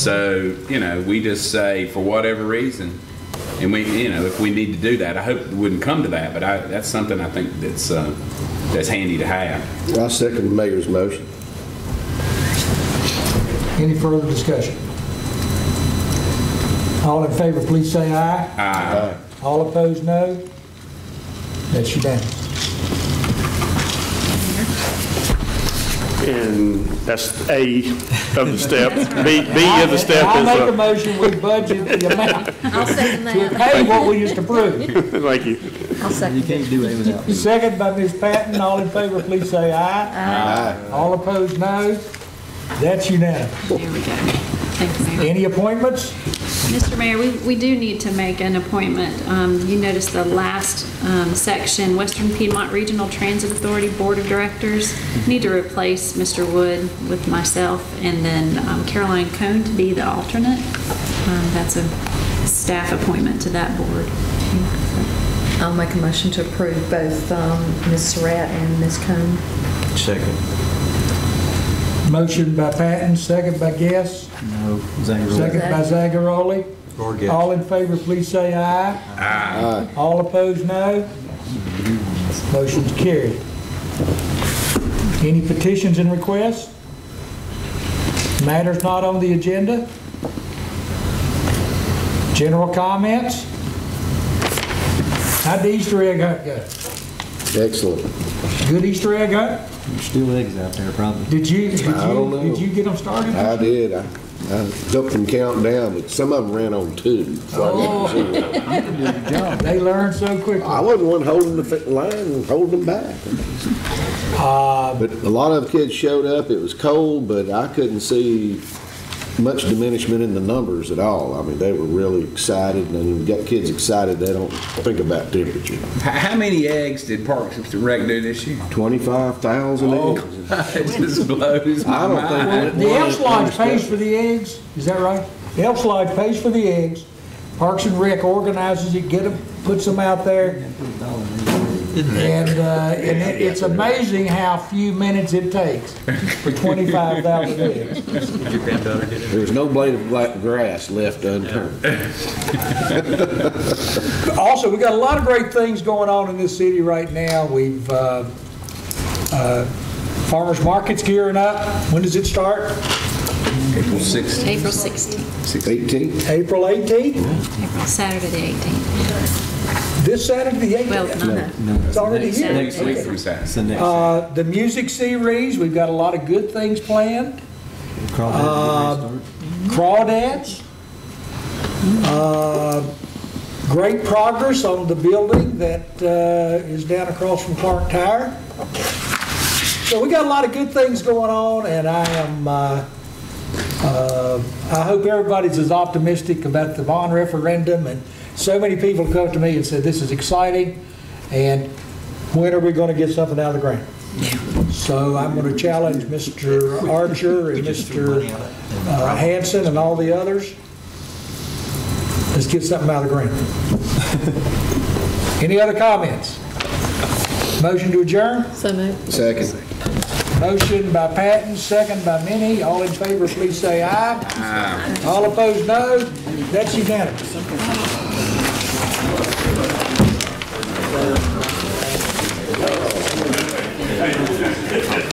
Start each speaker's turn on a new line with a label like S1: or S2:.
S1: So, you know, we just say, for whatever reason, and we, you know, if we need to do that, I hope it wouldn't come to that, but I, that's something I think that's, uh, that's handy to have.
S2: I second the mayor's motion.
S3: Any further discussion? All in favor, please say aye.
S1: Uh,
S3: All opposed, no. That's unanimous.
S4: And that's A of the step. B, B of the step
S3: I'll make a
S4: is, uh,
S3: motion, we budget the amount
S5: I'll second
S3: to
S5: that.
S3: pay what we just approved.
S4: thank you.
S5: I'll
S6: You
S5: second
S6: can't do it without me.
S3: Second by Ms. Patton, all in favor, please say aye.
S2: Aye.
S3: All opposed, no. That's unanimous.
S7: There we go. Thank you, Mayor.
S3: Any appointments?
S7: Mr. Mayor, we, we do need to make an appointment. Um, You noticed the last um, section, Western Piedmont Regional Transit Authority Board of Directors. Need to replace Mr. Wood with myself and then um, Caroline Cohn to be the alternate. Um, That's a staff appointment to that board.
S5: that. I'll make a motion to approve both um, Ms. Surratt and Ms. Cone.
S6: Second.
S3: Motion by Patton, second by Guess,
S6: No, Zangler.
S3: second by Zagaroli.
S6: Or Guess.
S3: All in favor, please say aye. Aye. All opposed, no. Motion's carried. Any petitions and requests? Matters not on the agenda? General comments? How'd the Easter egg hunt go?
S2: Excellent.
S3: Good Easter egg hunt?
S6: Still eggs out there, probably.
S3: Did you, did
S2: I don't
S3: you,
S2: know.
S3: did you get them started?
S2: I did. I I helped them count down, but some of them ran on two. so I didn't see them.
S3: They learn so quickly.
S2: I wasn't one holding the fi- line and holding them back. But a lot of kids showed up. It was cold, but I couldn't see much diminishment in the numbers at all. I mean, they were really excited, and when you got kids excited, they don't think about temperature.
S1: h- How many eggs did Parks and Rec do this year?
S2: 25,000
S1: Oh.
S2: eggs.
S1: It just blows my
S2: I don't think
S1: mind.
S2: that-
S3: The Elks Lodge pays for the eggs, is that right? The Elks Lodge pays for the eggs. Parks and Rec organizes it, get them, puts them out there. And, uh, and it- it's amazing how few minutes it takes for 25,000 eggs.
S2: There was no blade of black grass left unturned.
S3: Also, we got a lot of great things going on in this city right now. We've, uh, uh, farmers market's gearing up. When does it start?
S1: April 16th,
S7: April 16th,
S2: 18?
S3: April 18th?
S7: April, Saturday the 18th.
S3: This Saturday, the 18th?
S7: Well, no, no.
S3: It's already
S7: Next
S3: here.
S7: Saturday.
S1: next week from
S6: It's
S1: Saturday.
S6: the next.
S3: Uh, The music series, we've got a lot of good things planned,
S6: Crawl back
S3: uh,
S6: and restart.
S3: crawdads, Uh, great progress on the building that uh, is down across from Clark Tire. So we got a lot of good things going on, and I am, uh, uh, I hope everybody's as optimistic about the bond referendum, and so many people come to me and said, this is exciting, and when are we going to get something out of the ground? So I'm going to challenge Mr. Archer and Mr. uh, Hanson and all the others. Let's get something out of the ground. Any other comments? Motion to adjourn?
S5: So moved.
S2: Second.
S3: Motion by Patton, second by Minnie. All in favor, please say aye. All opposed, no. That's unanimous.